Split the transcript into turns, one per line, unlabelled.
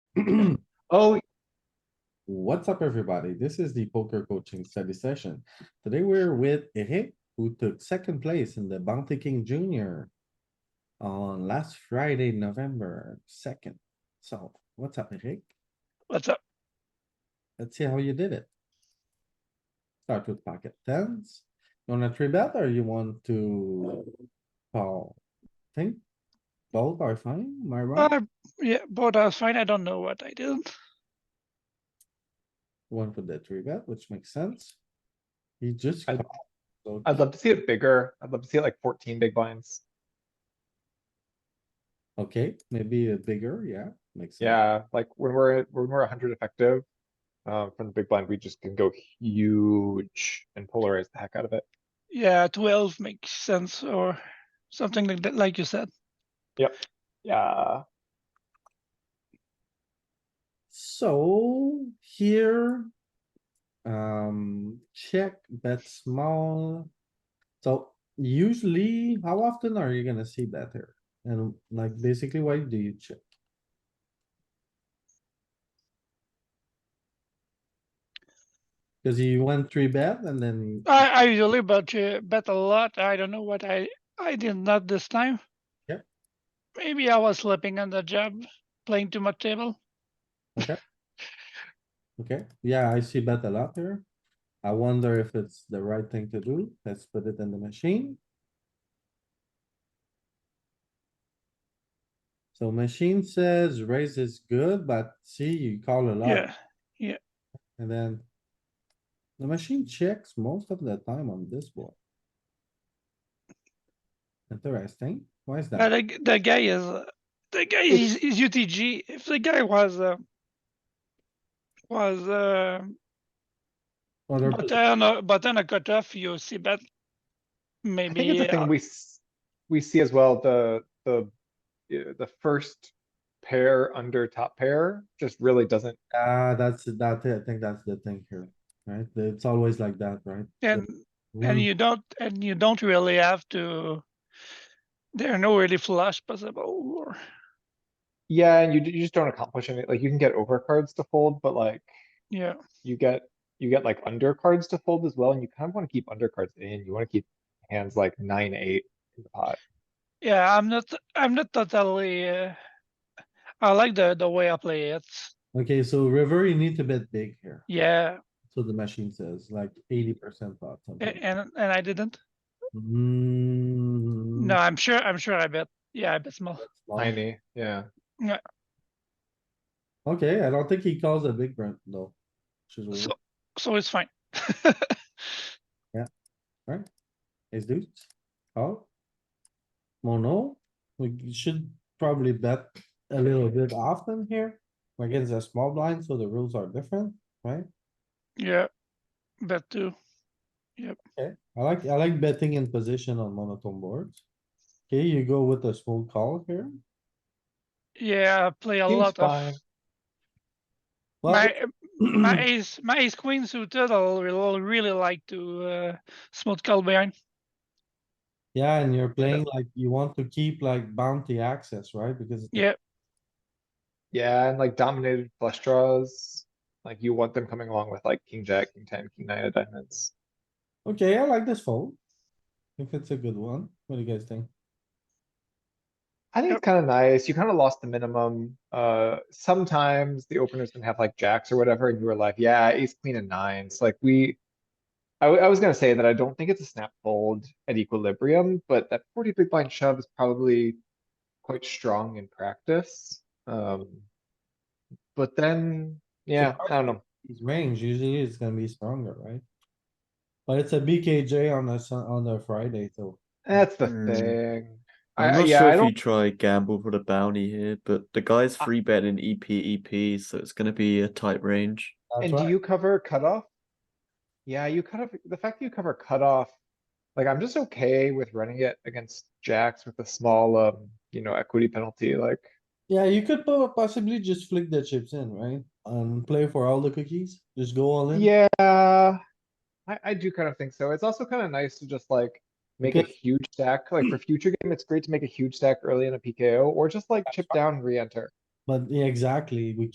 Oh. What's up, everybody? This is the poker coaching study session. Today we're with Eric, who took second place in the Bounty King Junior. On last Friday, November second. So what's up, Eric?
What's up?
Let's see how you did it. Start with pocket tens. You wanna three bet or you want to call? Think both are fine, am I right?
Uh, yeah, but I was fine. I don't know what I did.
One for the three bet, which makes sense. He just.
I-
called, so
I'd love to see it bigger. I'd love to see it like fourteen big blinds.
Okay, maybe a bigger, yeah, makes. sense.
Yeah, like when we're, when we're hundred effective. Um, from the big blind, we just can go huge and polarize the heck out of it.
Yeah, twelve makes sense or something like that, like you said.
Yeah,
So here. Um, check, bet small. So usually, how often are you gonna see that here? And like basically, why do you check? Cause you went three bet and then.
I, I usually bet, uh, bet a lot. I don't know what I, I did not this time.
Yep.
Maybe I was sleeping on the job, playing too much table.
Okay, yeah, I see bet a lot here. I wonder if it's the right thing to do. Let's put it in the machine. So machine says raise is good, but see, you call a lot
Yeah,
and then. The machine checks most of the time on this board. Interesting. Why is
but
that?
the, the guy is, uh, the guy is, is UTG. If the guy was, uh, was, uh,
Other-
button, or- button a cutoff, you see bet.
I think it's
Maybe,
a
uh,
thing we, s- we see as well, the, the, yeah, the first pair under top pair just really doesn't,
Ah, that's, that's it. I think that's the thing here, right? It's always like that, right?
and
One-
Mm.
And you don't, and you don't really have to, there are no really flush possible, or,
yeah, and you, d- you just don't accomplish it. Like you can get over cards to fold, but like
yeah,
you get, you get like under cards to fold as well, and you kind of want to keep under cards in. You want to keep hands like nine, eight in the pot.
yeah, I'm not, I'm not totally, uh, I like the, the way I play it,
Okay, so river, you need to bet big here.
yeah,
So the machine says like eighty percent pot.
a-
something.
and, and I didn't,
Mm.
Hmm,
no, I'm sure, I'm sure I bet, yeah, I bet small,
small.
Tiny, yeah.
Okay, I don't think he calls a big brand though. which is weird.
so, so it's fine.
Ace deuce, call. Mono, we should probably bet a little bit often here. We're Against a small blind, so the rules are different, right?
Yeah, bet too,
Okay, I like, I like betting in position on monotone boards. Okay, you go with a small call here.
yeah, I play a
Seems
lot of,
fine.
Well,
my, my ace, my ace queen suited, I'll really, really like to, uh, smooth call behind,
Yeah, and you're playing like you want to keep like bounty access, right? Because. it's a-
yeah,
Yeah, and like dominated flush draws, like you want them coming along with like king jack, king ten, king nine of diamonds.
Okay, I like this fold. If it's a good one, what do you guys think?
I think it's kind of nice. You kind of lost the minimum. Uh, sometimes the openers can have like jacks or whatever, and you were like, yeah, ace, queen and nines, like we. I, w- I was gonna say that I don't think it's a snap fold at equilibrium, but that forty big blind shove is probably quite strong in practice. Um, but then, yeah, I don't know.
His range usually is gonna be stronger, right? But it's a BKJ on a Sun, on a Friday, so.
That's the
Hmm.
thing. I,
I'm
I-
not
yeah,
sure
I
if you
don't,
try gamble for the bounty here, but the guy's
I-
free bet in E EP EP, so it's going to be a tight range.
that's
and do
why-
you cover cutoff? Yeah, you kind of, the fact that you cover cutoff, like, I'm just okay with running it against jacks with a small, um, you know, equity penalty, like,
Yeah, you could po- possibly just flick the chips in, right? And play for all the cookies, just go all in.
yeah. I, I do kind of think so. It's also kind of nice to just like make a
Because-
huge stack, like for future game, it's great to make a huge stack early in a PKO, or just like chip down, and re-enter.
But yeah, exactly, we